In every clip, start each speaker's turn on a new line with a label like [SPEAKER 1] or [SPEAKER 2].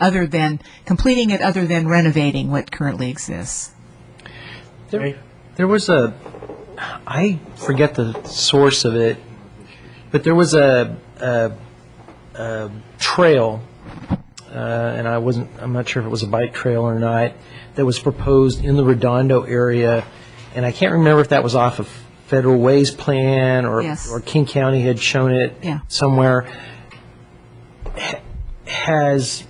[SPEAKER 1] other than, completing it other than renovating what currently exists?
[SPEAKER 2] There, there was a, I forget the source of it, but there was a, a, a trail, uh, and I wasn't, I'm not sure if it was a bike trail or not, that was proposed in the Redondo area, and I can't remember if that was off of Federal Ways Plan or,
[SPEAKER 1] Yes.
[SPEAKER 2] King County had shown it
[SPEAKER 1] Yeah.
[SPEAKER 2] somewhere. Ha- Has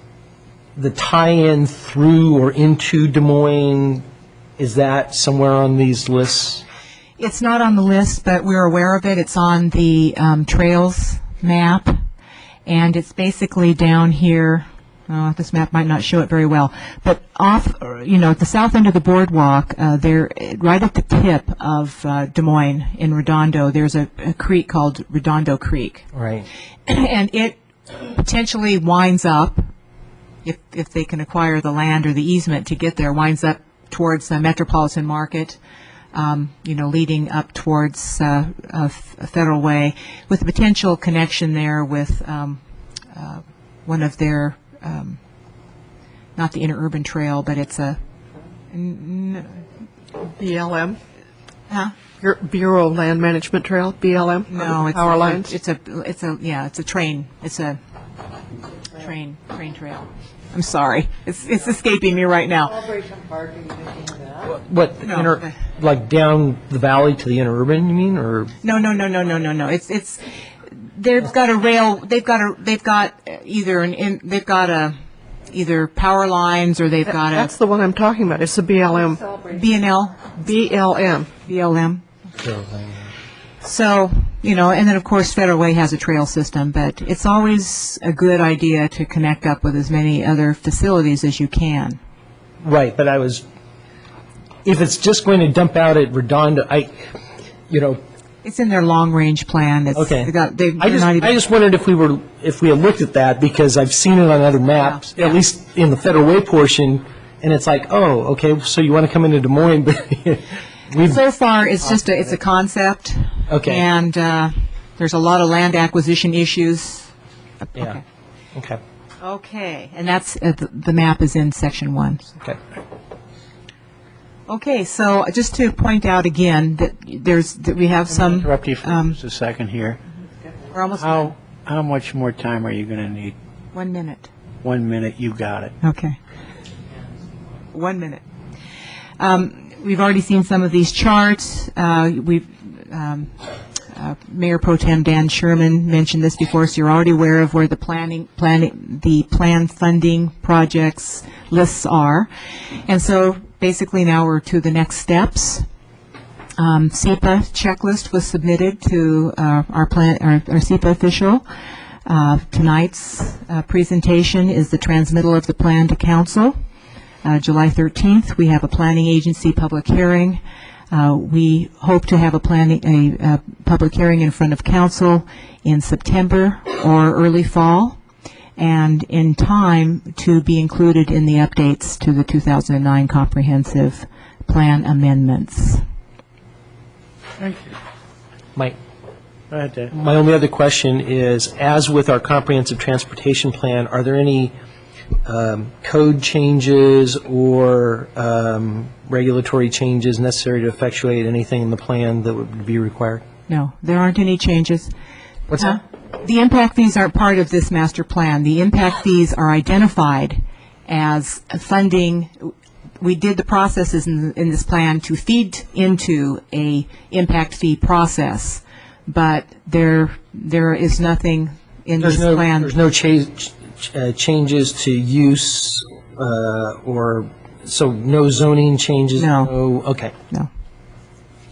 [SPEAKER 2] the tie-in through or into Des Moines, is that somewhere on these lists?
[SPEAKER 1] It's not on the list, but we're aware of it. It's on the um, trails map, and it's basically down here. Oh, this map might not show it very well, but off, er, you know, at the south end of the boardwalk, uh, there, eh, right at the tip of uh, Des Moines in Redondo, there's a, a creek called Redondo Creek,
[SPEAKER 2] Right.
[SPEAKER 1] and it potentially winds up, if if they can acquire the land or the easement to get there, winds up towards the Metropolitan Market um, you know, leading up towards uh, uh, F- Federal Way, with a potential connection there with um, uh, one of their, um, not the interurban trail, but it's a,
[SPEAKER 3] BLM? Huh? Bureau of Land Management Trail, BLM?
[SPEAKER 1] no, it's
[SPEAKER 3] Power
[SPEAKER 1] a-
[SPEAKER 3] lines?
[SPEAKER 1] It's a, it's a, yeah, it's a train. It's a train, train trail. I'm sorry, it's it's escaping me right now.
[SPEAKER 2] What,
[SPEAKER 1] No.
[SPEAKER 2] inter- like down the valley to the interurban, you mean, or?
[SPEAKER 1] No, no, no, no, no, no, no. It's it's they've got a rail. They've got a they've got uh, either an in, they've got a either power lines or they've got
[SPEAKER 3] That's
[SPEAKER 1] a
[SPEAKER 3] the one I'm talking about, it's the BLM.
[SPEAKER 1] B and L
[SPEAKER 3] BLM.
[SPEAKER 1] BLM. So you know, and then of course Federal Way has a trail system, but it's always a good idea to connect up with as many other facilities as you can.
[SPEAKER 2] Right, but I was, if it's just going to dump out at Redondo, I, you know,
[SPEAKER 1] It's in their long range plan. It's,
[SPEAKER 2] okay.
[SPEAKER 1] they got, they,
[SPEAKER 2] I
[SPEAKER 1] they're
[SPEAKER 2] just,
[SPEAKER 1] not even.
[SPEAKER 2] I just wondered if we were, if we had looked at that, because I've seen it on other maps,
[SPEAKER 1] Yeah.
[SPEAKER 2] at least in the Federal Way portion, and it's like, oh, okay, so you want to come into Des Moines, but we've
[SPEAKER 1] So far, it's just a, it's a concept.
[SPEAKER 2] Okay.
[SPEAKER 1] And uh, there's a lot of land acquisition issues.
[SPEAKER 2] Yeah, okay,
[SPEAKER 1] Okay, and that's, uh, the the map is in section one.
[SPEAKER 2] okay.
[SPEAKER 1] Okay, so just to point out again that there's, that we have some,
[SPEAKER 4] Interrupt you for
[SPEAKER 1] um,
[SPEAKER 4] just a second here.
[SPEAKER 1] we're almost,
[SPEAKER 4] How, how much more time are you going to need?
[SPEAKER 1] one minute.
[SPEAKER 4] One minute, you got it.
[SPEAKER 1] Okay. One minute. Um, We've already seen some of these charts. Uh, We've, um, uh, Mayor Pro Tem Dan Sherman mentioned this before, so you're already aware of where the planning, planning, the plan funding projects lists are. And so basically now we're to the next steps. Um, SEPA checklist was submitted to uh, our plan, our our SEPA official. Uh, Tonight's uh, presentation is the transmittal of the plan to council. Uh, July 13th, we have a planning agency public hearing. Uh, We hope to have a planning, a uh, public hearing in front of council in September or early fall, and in time to be included in the updates to the 2009 comprehensive plan amendments.
[SPEAKER 4] Thank you.
[SPEAKER 2] Mike?
[SPEAKER 4] Go ahead, Dave.
[SPEAKER 2] My only other question is, as with our comprehensive transportation plan, are there any um, code changes or um, regulatory changes necessary to effectuate anything in the plan that would be required?
[SPEAKER 1] No, there aren't any changes. Uh,
[SPEAKER 2] What's that?
[SPEAKER 1] The impact fees aren't part of this master plan. The impact fees are identified as funding, we did the processes in, in this plan to feed into a impact fee process, but there, there is nothing in this
[SPEAKER 2] There's no,
[SPEAKER 1] plan.
[SPEAKER 2] there's no cha- ch- uh, changes to use uh, or, so no zoning changes?
[SPEAKER 1] No.
[SPEAKER 2] Okay.
[SPEAKER 1] No.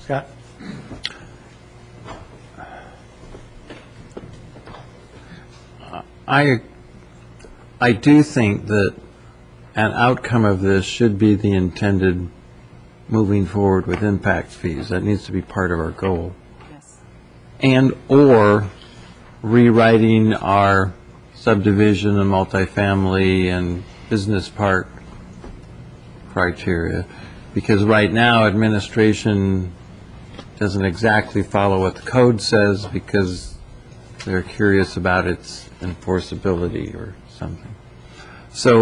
[SPEAKER 4] Scott?
[SPEAKER 5] I, I do think that an outcome of this should be the intended moving forward with impact fees. That needs to be part of our goal. And/or rewriting our subdivision and multifamily and business park criteria. Because right now, administration doesn't exactly follow what the code says because they're curious about its enforceability or something. So